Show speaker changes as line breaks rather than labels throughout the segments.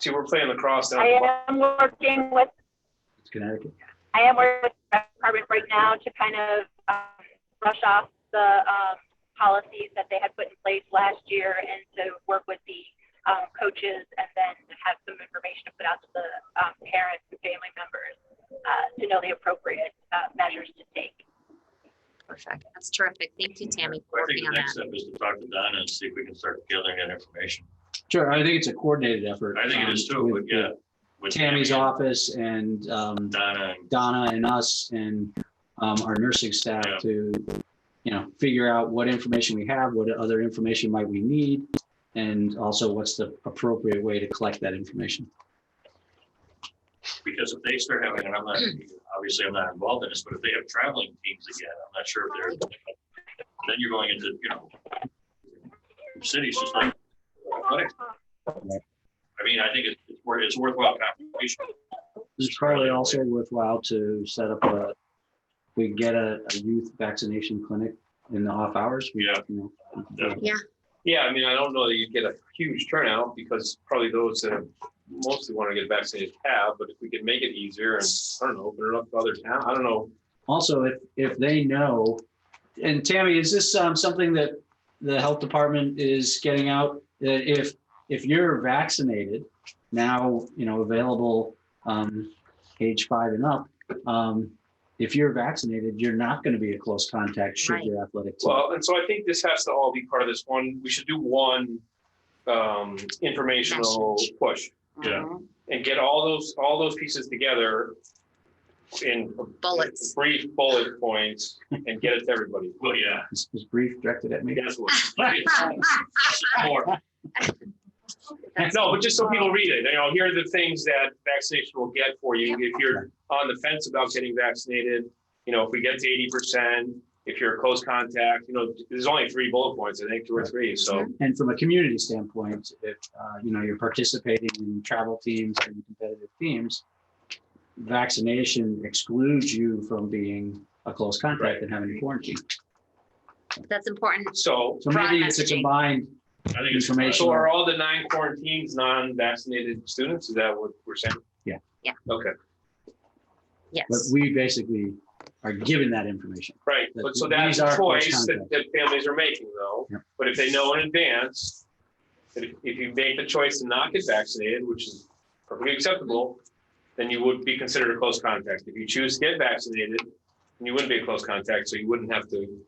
See, we're playing lacrosse down. at the
I am working with,
It's Connecticut.
I am working with the department right now to kind of um, brush off the um, policies that they had put in place last year and to work with the um, coaches and then have some information to put out to the um, parents and family members uh, to know the appropriate uh, measures to take.
Perfect. That's terrific. Thank you, Tammy, for
I think
working
the
on
next
that.
step is to talk to Donna and see if we can start gathering that information.
Sure, I think it's a coordinated effort.
I think it is
um,
too, but
with-
yeah.
with
with
Tammy's
Tammy
office and um,
and Donna and
Donna and us and um, our nursing staff
Yeah.
to, you know, figure out what information we have, what other information might we need, and also what's the appropriate way to collect that information.
because if they start having, and I'm not, obviously I'm not involved in this, but if they have traveling teams again, I'm not sure if they're, then you're going into, you know, cities just like. athletics. I mean, I think it's, it's worth- it's worthwhile conversation.
It's probably also worthwhile to set up a, we get a, a youth vaccination clinic in the off hours. We,
Yeah.
you know,
Yeah.
Yeah, I mean, I don't know that you'd get a huge turnout because probably those that mostly want to get vaccinated have, but if we could make it easier and, I don't know, open it up to other towns, I don't know.
Also, if, if they know, and Tammy, is this um, something that the health department is getting out? That if, if you're vaccinated now, you know, available um, age five and up, um, if you're vaccinated, you're not going to be a close contact should
Right.
your athletic team.
Well, and so I think this has to all be part of this one. We should do one um, informational
Message.
push
Yeah.
Mhm.
and get all those, all those pieces together in
Bullets.
brief bullet points and get it to everybody.
Well, yeah.
This was brief directed at me.
That's what-
Let me-
Ah,
More.
That's-
No, but just so people read it, you know, here are the things that vaccination will get for you if you're on the fence about getting vaccinated. You know, if we get to eighty percent, if you're a close contact, you know, there's only three bullet points, I think, two or three, so.
And from a community standpoint, if, uh, you know, you're participating in travel teams and competitive teams, vaccination excludes you from being a close contact and having to quarantine.
That's important.
So,
So maybe it's a
Broad messaging.
combined,
I think it's
Information.
so are all the nine quarantines non-vaccinated students? Is that what we're saying?
Yeah.
Yeah.
Okay,
but
Yes.
we basically are given that information.
right, but so
But
that's
these
a
are close
choice that, that families are making though,
Yeah.
but if they know in advance. That if if you make the choice to not get vaccinated, which is perfectly acceptable, then you would be considered a close contact. If you choose to get vaccinated, then you wouldn't be a close contact, so you wouldn't have to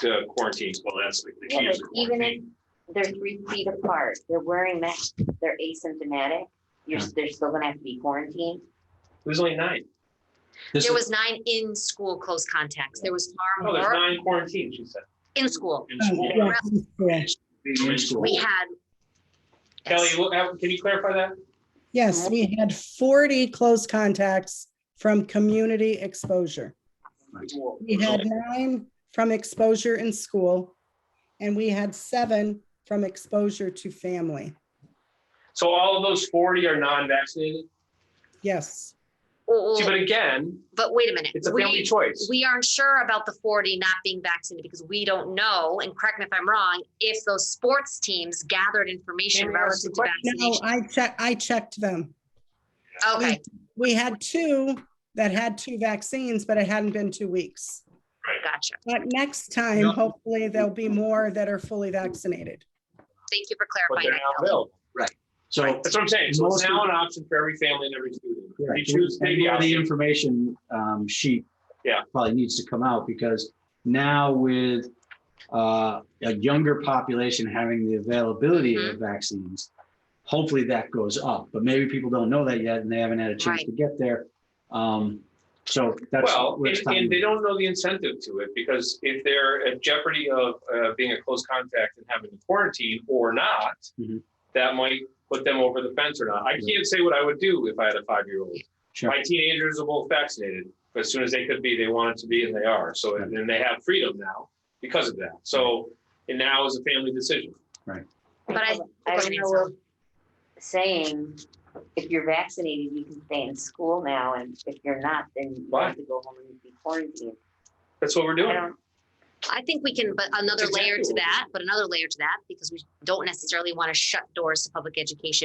to quarantine.
Well, that's the the key
Yeah,
is the
but even if
quarantine.
they're three feet apart, they're wearing masks, they're asymptomatic, you're,
Yeah.
they're still gonna have to be quarantined.
There's only nine.
This
There
is,
was nine in-school close contacts. There was far
No, Oh, there's
more
nine quarantines, she said.
in school.
In school,
in school.
We had.
Kelly,
Yes.
what- how- can you clarify that?
Yes, we had 40 close contacts from community exposure. We had nine from exposure in school, and we had seven from exposure to family.
So all of those forty are non-vaccinated?
Yes,
Oh,
See, but
oh,
again,
But wait a minute.
it's a
We-
family choice.
we aren't sure about the 40 not being vaccinated because we don't know, and correct me if I'm wrong, if those sports teams gathered information
Tammy asked the
relative to
no,
vaccination.
I checked, I checked them.
Okay,
We had two that had two vaccines, but it hadn't been two weeks.
gotcha.
But next time, hopefully, there'll be more that are fully vaccinated.
Thank you for
But
clarifying
they're
that.
now
Kelly.
available.
So
That's what I'm saying. So it's
Mostly-
now an option for every family and every student. If you
Correct.
choose
And
maybe
where the
option.
information um, sheet.
Yeah.
Probably needs to come out because now with uh, a younger population having the availability of vaccines, hopefully that goes up, but maybe people don't know that yet and they haven't had a chance
Right.
to get there. Um, So that's.
Well,
where
and,
it's time
and
to-
they don't know the incentive to it because if they're at jeopardy of uh, being a close contact and having to quarantine or not,
Mhm.
that might put them over the fence or not. I can't say what I would do if I had a five-year-old.
Sure.
My teenagers are both vaccinated. but As soon as they could be, they wanted to be and they are. So and then they have freedom now because of that. So and now is a family decision.
But I-
I don't know if saying, if you're vaccinated, you can stay in school now, and if you're not, then you
Why?
have to go home and be quarantined.
That's what we're
I
doing.
don't,
I think we can, but another
That's
layer to
exactly what we-
that, but another layer to that, because we don't necessarily want to shut doors to public education